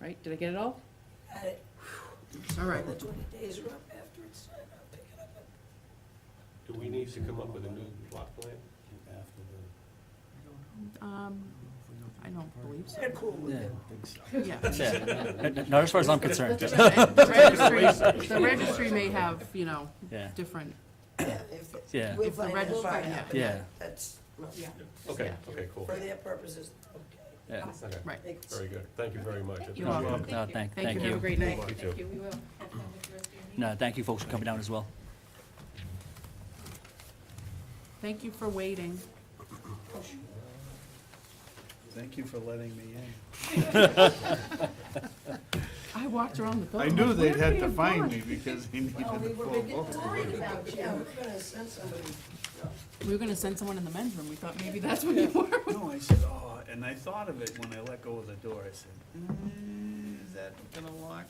right? Did I get it all? Had it, All right. the twenty days are up after it's, signed, I'll pick it up. Do we need to come up with a new plot plan? Um, I don't believe so. They're cool with it. Yeah. Yeah. Not as far as I'm concerned. The registry- the registry may have, you know, Yeah. different, Yeah, if it- Yeah. We'll If the find red- that find out. out. Yeah. That's, yeah, Okay, Yeah. okay, cool. for their purposes, okay. Yeah. Okay, right. They can- Very good. Thank you very much. I You're appreciate No, it. welcome. No, Thank thank, you, thank have a you. great night. You too. Thank you, we will. Have fun with the rest of your meeting. No, thank you folks for coming down as well. Thank you for waiting. Thank you for letting me in. I walked around the I building. knew like, they'd where had could to have find gone? me because they needed Well, we a were full making vote. worried about you. Yeah, we're gonna send somebody. We were gonna send someone in the men's room, we thought maybe that's what you were. No, I said, oh, and I thought of it when I let go of the door, I said, "Mm, is that gonna lock?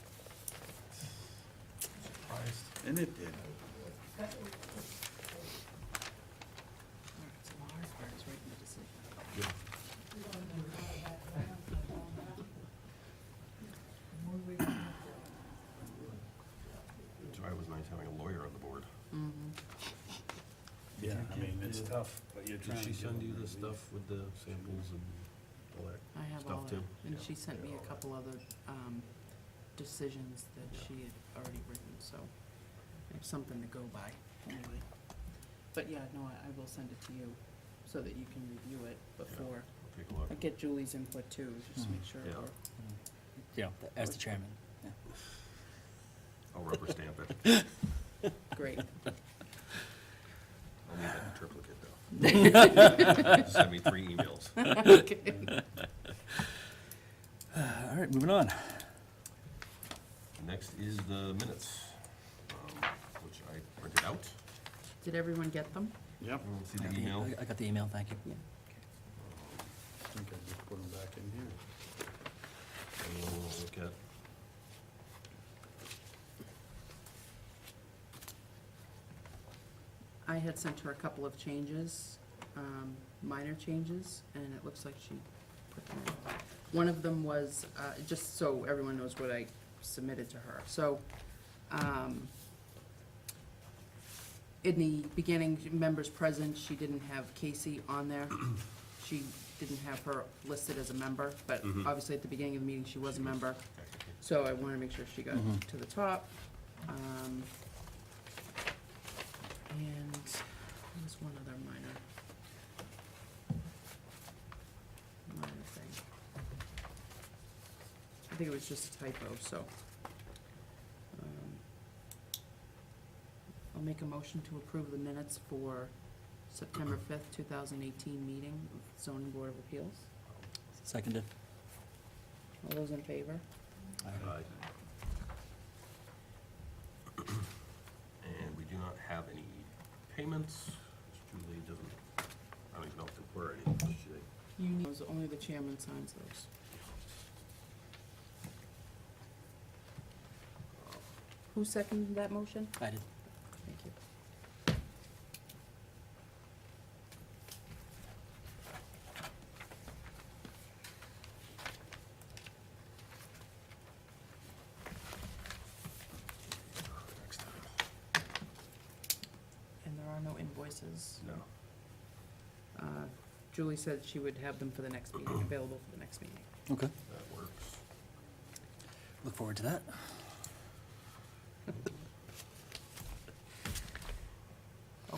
And it did. It's always nice having a lawyer on the board. Yeah, I mean, it's tough, but you're Did trying to. she give send them you the relief. stuff with the samples and all that? I have Stuff all that, too. and Yeah. she sent me a couple other, um, decisions that she had already written, so I have something to go by, anyway. But yeah, no, I, I will send it to you, so that you can review it before, I'll Take a look. I get Julie's input too, just to make sure Hmm. Yeah. we're You know, as the chairman. I'll rubber stamp it. great. I'll need that in triplicate though. Send me three emails. Okay. All right, moving on. Next is the minutes, um, which I printed out. Did everyone get them? Yep. Everyone see I got the the- email? I got the email, thank you. I think I just put them back in here. And we'll look at. I had sent her a couple of changes, um, minor changes, and it looks like she put them in. One of them was, uh, just so everyone knows what I submitted to her, so, um, in the beginning, members present, she didn't have Casey on there. She didn't have her listed as a member, but Mhm. obviously at the beginning of the meeting, she was a member. okay. So I wanna make sure she got Mhm. to the top. Um, and there's one other minor. Minor thing. I think it was just a typo, so. um, I'll make a motion to approve the minutes for September fifth, two thousand eighteen meeting of zoning board of appeals. Seconded. All those in favor? All right. Aye. And we do not have any payments. Julie doesn't, I don't even know if there were any. does she? You need, those- only the chairman signs those. Who seconded that motion? I did. Thank you. Next time. And there are no invoices. No. Uh, Julie said she would have them for the next meeting, available for the next meeting. Okay. That works. Look forward to that.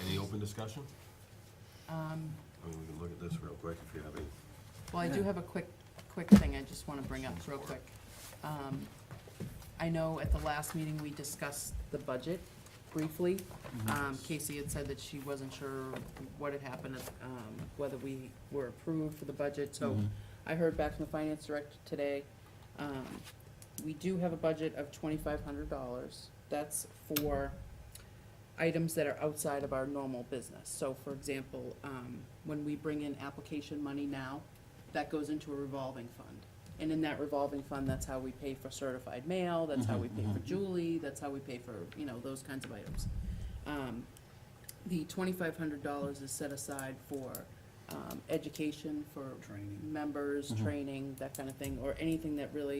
Any open discussion? Um, I mean, we can look at this real quick if you have any. Well, I do Yeah. have a quick, quick thing I just want to bring up real quick. Um, I know at the last meeting, we discussed the budget briefly. Um, Casey had said that she wasn't sure what had happened, um, whether we were approved for the budget, so Mhm. I heard back from the finance director today. Um, we do have a budget of twenty-five hundred dollars. That's for items that are outside of our normal business. So for example, um, when we bring in application money now, that goes into a revolving fund. And in that revolving fund, that's how we pay for certified mail, that's how we pay for Julie, that's how we pay for, you know, those kinds of items. Um, the twenty-five hundred dollars is set aside for, um, education, for Training. members, training, that kind of thing, or anything that really